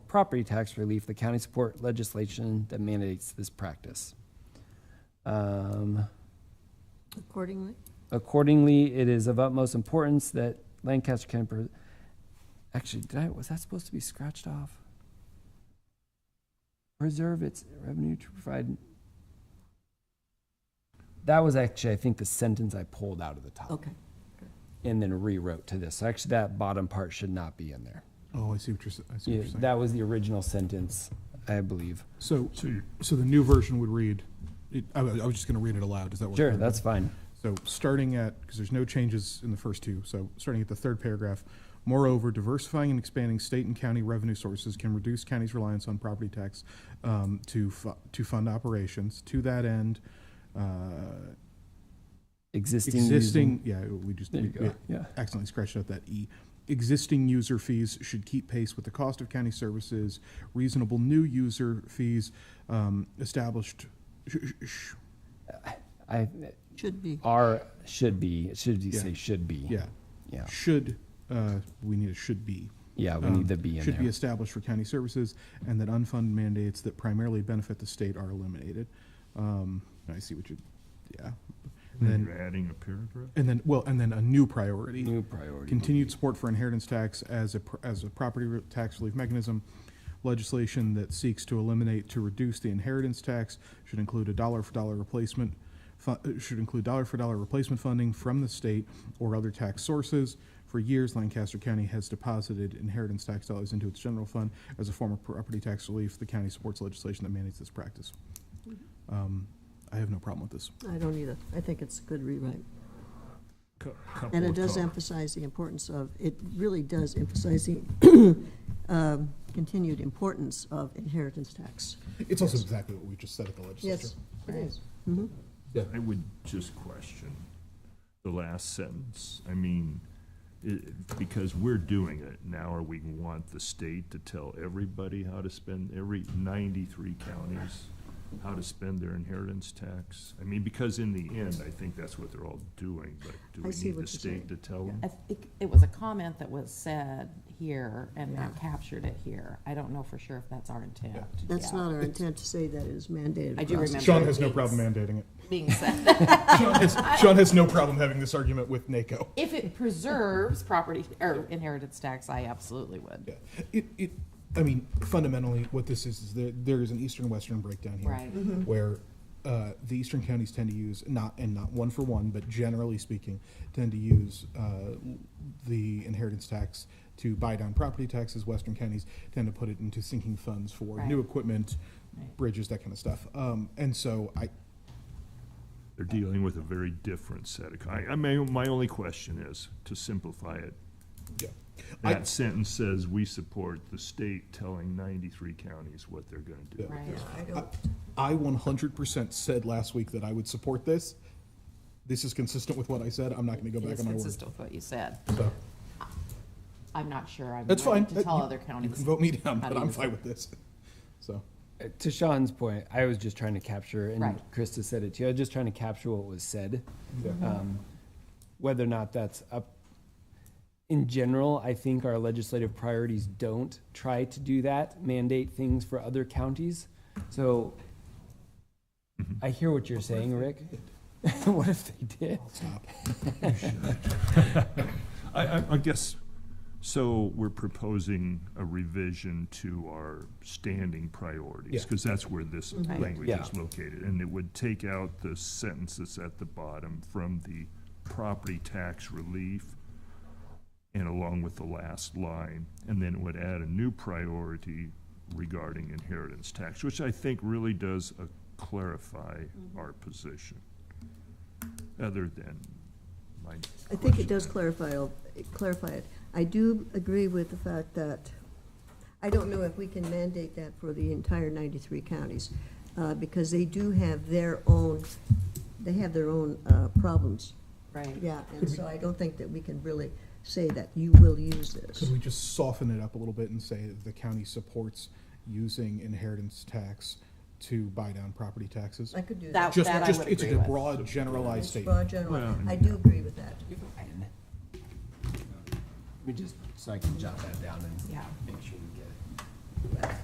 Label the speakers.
Speaker 1: property tax relief, the county support legislation that mandates this practice. Um,
Speaker 2: accordingly.
Speaker 1: Accordingly, it is of utmost importance that Lancaster County. pre- Actually, did I, was that supposed to be scratched off? Preserve its revenue to provide. That was actually, I think, the sentence I pulled out of the top
Speaker 2: Okay.
Speaker 1: and then rewrote to this. So Actually, that bottom part should not be in there.
Speaker 3: Oh, I see what you're, s- I see what
Speaker 1: Yeah,
Speaker 3: you're saying.
Speaker 1: That was the original sentence, I believe.
Speaker 3: So, so the new version would read, it- I wa- I was just going to read it aloud. Does that work?
Speaker 1: Sure, that's fine.
Speaker 3: So starting at, because there's no changes in the first two, so starting at the third paragraph, moreover, diversifying and expanding state and county revenue sources can reduce counties' reliance on property tax um, to fu- to fund operations. To that end, uh,
Speaker 1: Existing. using-
Speaker 3: existing, yeah, we just
Speaker 1: There you
Speaker 3: we- we
Speaker 1: go, yeah.
Speaker 3: accidentally scratched out that E. Existing user fees should keep pace with the cost of county services. Reasonable new user fees um, established. sh- sh- sh-
Speaker 1: I,
Speaker 2: Should be.
Speaker 1: are, should be, it should you
Speaker 3: Yeah.
Speaker 1: say should be.
Speaker 3: Yeah,
Speaker 1: Yeah,
Speaker 3: should, uh, we need a should be.
Speaker 1: yeah, we
Speaker 3: um,
Speaker 1: need the B in
Speaker 3: Should be
Speaker 1: there.
Speaker 3: established for county services, and that unfunded mandates that primarily benefit the state are eliminated. Um, I see what you,
Speaker 2: Hmm.
Speaker 3: yeah. And then,
Speaker 4: Then you're adding a paragraph?
Speaker 3: and then, well, and then a new priority.
Speaker 1: New priority.
Speaker 3: Continued support for inheritance tax as a, pr- as a property re- tax relief mechanism. Legislation that seeks to eliminate, to reduce the inheritance tax should include a dollar for dollar replacement, fu- uh, should include dollar for dollar replacement funding from the state or other tax sources. For years, Lancaster County has deposited inheritance tax dollars into its general fund as a form of property tax relief. The county supports legislation that mandates this practice. Um, I have no problem with this.
Speaker 2: I don't either. I think it's a good rewrite.
Speaker 4: Cou- couple
Speaker 2: And it
Speaker 4: of
Speaker 2: does
Speaker 4: col-
Speaker 2: emphasize the importance of, it really does emphasize the um, continued importance of inheritance tax.
Speaker 3: It's also exactly what we just said at the legislature.
Speaker 2: Yes, it is.
Speaker 4: I would just question the last sentence. I mean, it, because we're doing it now, or we want the state to tell everybody how to spend, every ninety-three counties, how to spend their inheritance tax? I mean, because in the end, I think that's what they're all doing, but do
Speaker 2: I
Speaker 4: we
Speaker 2: see
Speaker 4: need
Speaker 2: what
Speaker 4: the
Speaker 2: you're saying.
Speaker 4: state to tell them?
Speaker 5: I think it was a comment that was said here and Matt captured it here. I don't know for sure if that's our intent.
Speaker 2: That's
Speaker 5: Yeah.
Speaker 2: not our intent to say that it is mandated.
Speaker 5: I do
Speaker 2: across-
Speaker 5: remember.
Speaker 3: Sean has no
Speaker 5: it
Speaker 3: problem
Speaker 5: being-
Speaker 3: mandating it.
Speaker 5: Being said,
Speaker 3: Sean has, Sean has no problem having this argument with NACO.
Speaker 5: if it preserves property or inheritance tax, I absolutely would.
Speaker 3: Yeah. It, it, I mean, fundamentally, what this is, is there, there is an eastern-western breakdown here.
Speaker 5: Right.
Speaker 3: Where, uh, the eastern counties tend to use, not, and not one for one, but generally speaking, tend to use, uh, the inheritance tax to buy down property taxes. Western counties tend to put it into sinking funds for new
Speaker 5: Right.
Speaker 3: equipment,
Speaker 5: Right.
Speaker 3: bridges, that kind of stuff. Um, and so I,
Speaker 4: They're dealing with a very different set of, I, I mean, my only question is, to simplify it,
Speaker 3: yeah. I-
Speaker 4: That sentence says, we support the state telling ninety-three counties what they're gonna do.
Speaker 3: Yeah.
Speaker 5: Right.
Speaker 2: I don't,
Speaker 3: I one hundred percent said last week that I would support this. This is consistent with what I said. I'm not gonna go
Speaker 5: It
Speaker 3: back
Speaker 5: is
Speaker 3: on my word.
Speaker 5: consistent with what you said.
Speaker 3: So,
Speaker 5: I'm not sure. I'm
Speaker 3: That's
Speaker 5: ready
Speaker 3: fine.
Speaker 5: to
Speaker 3: That-
Speaker 5: tell
Speaker 3: you-
Speaker 5: other
Speaker 3: You
Speaker 5: counties.
Speaker 3: can vote me down,
Speaker 5: how to
Speaker 3: but I'm
Speaker 5: use
Speaker 3: fine
Speaker 5: it.
Speaker 3: with this. So,
Speaker 1: Uh, To Sean's point, I was just trying to capture, and
Speaker 5: Right.
Speaker 1: Krista said it too. I was just trying to capture what was said.
Speaker 3: yeah.
Speaker 1: Um, whether or not that's up. In general, I think our legislative priorities don't try to do that, mandate things for other counties. So
Speaker 3: Mm-hmm.
Speaker 1: I hear what you're saying, Rick. what if they did?
Speaker 3: Stop.
Speaker 4: I, I, I guess, so we're proposing a revision to our standing priorities,
Speaker 3: Yeah.
Speaker 4: because that's where this
Speaker 5: Right.
Speaker 4: language
Speaker 1: Yeah.
Speaker 4: is located. And it would take out the sentence that's at the bottom from the property tax relief and along with the last line, and then it would add a new priority regarding inheritance tax, which I think really does uh, clarify
Speaker 2: Mm-hmm.
Speaker 4: our position, other than my
Speaker 2: I think it
Speaker 4: question.
Speaker 2: does clarify, it- clarify it. I do agree with the fact that, I don't know if we can mandate that for the entire 93 counties, uh, because they do have their own, they have their own uh, problems.
Speaker 5: Right.
Speaker 2: Yeah, and so I don't think that we can really say that you will use this.
Speaker 3: Could we just soften it up a little bit and say that the county supports using inheritance tax to buy down property taxes?
Speaker 2: I could do that.
Speaker 5: That-
Speaker 3: Just,
Speaker 5: I
Speaker 3: just,
Speaker 5: would
Speaker 3: it's a
Speaker 5: agree with.
Speaker 3: broad generalized
Speaker 2: It's
Speaker 3: statement.
Speaker 2: broad general.
Speaker 4: Well,
Speaker 2: I do agree with that.
Speaker 1: Let me just, so I can jot that down and
Speaker 5: Yeah.
Speaker 1: make sure we get it.